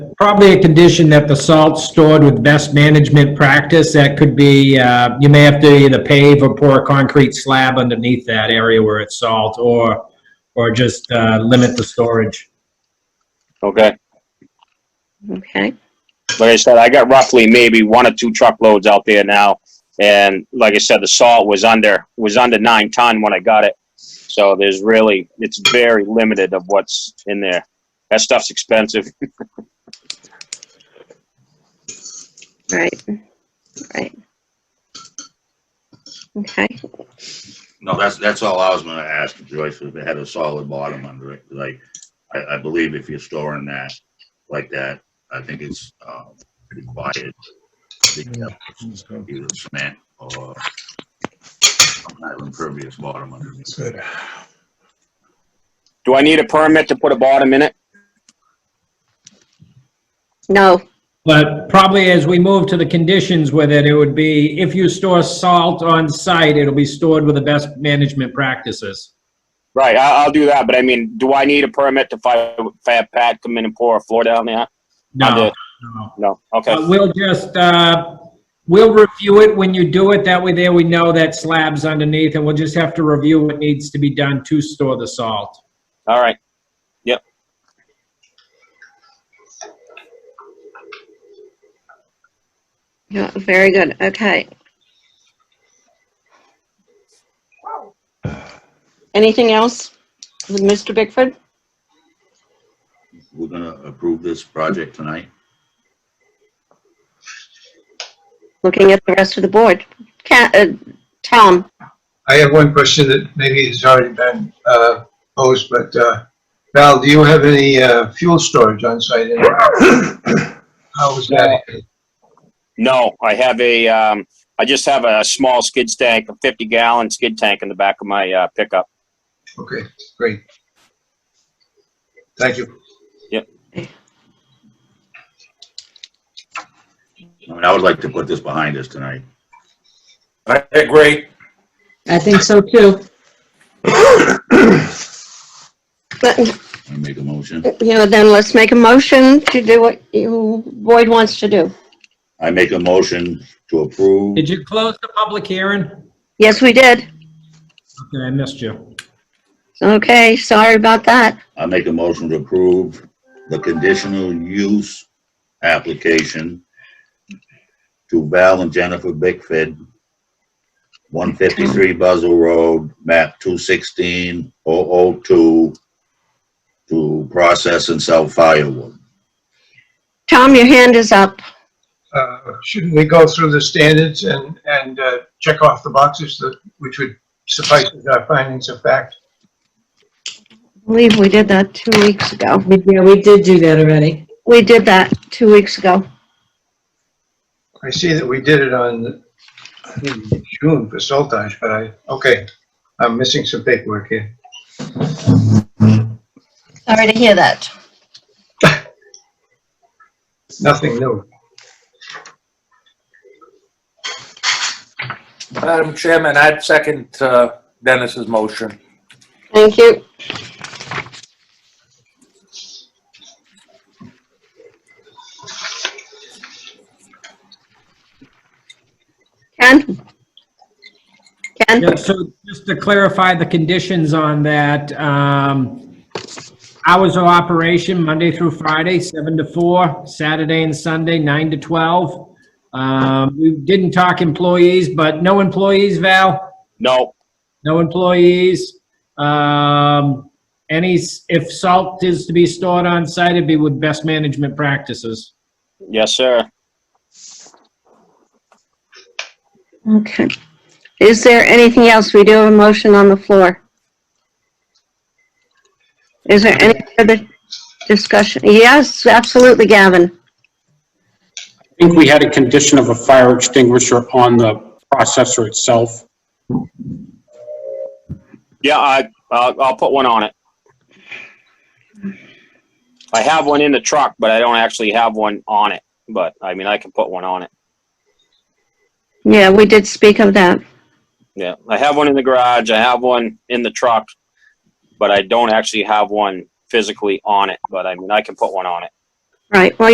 probably a condition that the salt's stored with best management practice. That could be, uh, you may have to either pave or pour a concrete slab underneath that area where it's salt or, or just, uh, limit the storage. Okay. Okay, Like I said, I got roughly maybe one or two truckloads out there now. And like I said, the salt was under, was under nine ton when I got it. So there's really, it's very limited of what's in there. That stuff's expensive. right, right. Okay, No, that's, that's all I was gonna ask Joyce, if it had a solid bottom under it, like, I, I believe if you're storing that like that, I think it's, um, required. I think that's Either cement or an impervious bottom underneath. Good. Do I need a permit to put a bottom in it? no, But probably as we move to the conditions with it, it would be, if you store salt on site, it'll be stored with the best management practices. Right, I, I'll do that, but I mean, do I need a permit to fi- if I have Pat come in and pour a floor down there? I No, did. no. No, okay, Uh, We'll just, uh, we'll review it when you do it. That way there we know that slab's underneath and we'll just have to review what needs to be done to store the salt. all right. no, very good, okay. Anything else with Mr. Bickford? We're gonna approve this project tonight. Looking at the rest of the board. Ca- uh, Tom, I have one question that maybe has already been uh, posed, but uh, Val, do you have any uh, fuel storage on site? And How is that? No, I have a, um, I just have a small skid tank, a fifty gallon skid tank in the back of my, uh, pickup. Okay, great. Thank you. I mean, I would like to put this behind us tonight. I agree. I think so too. but, I make a motion. you know, then let's make a motion to do what you, Boyd wants to do. I make a motion to approve. Did you close the public hearing? Okay, Yes, we did. I missed you. Okay, sorry about that. I make a motion to approve the conditional use application to Val and Jennifer Bickford, 153 Buzzell Road, map 216002, to process and sell firewood. Tom, your hand is up. Uh, Shouldn't we go through the standards and, and uh, check off the boxes that, which would suffice as our findings of fact? I believe we did that two weeks ago. We- Yeah, we did do that already. We did that two weeks ago. I see that we did it on I think, June for Soltage, but I, okay, I'm missing some paperwork here. Sorry to hear that. Nothing new. Madam Chairman, I'd second uh, Dennis's motion. Thank you. Ken? Yeah, Ken? so just to clarify the conditions on that, um, hours of operation, Monday through Friday, seven to four, Saturday and Sunday, nine to twelve. Um, we didn't talk employees, but no employees, Val? No, no employees. Um, any, s- if salt is to be stored on site, it'd be with best management practices. yes, sir. Okay. Is there anything else? We do have a motion on the floor. Is there any further discussion? Yes, absolutely, Gavin. I think we had a condition of a fire extinguisher on the processor itself. Yeah, I, I'll, I'll put one on it. I have one in the truck, but I don't actually have one on it, but I mean, I can put one on it. Yeah, we did speak of that. Yeah, I have one in the garage, I have one in the truck, but I don't actually have one physically on it, but I mean, I can put one on it. Right. Well,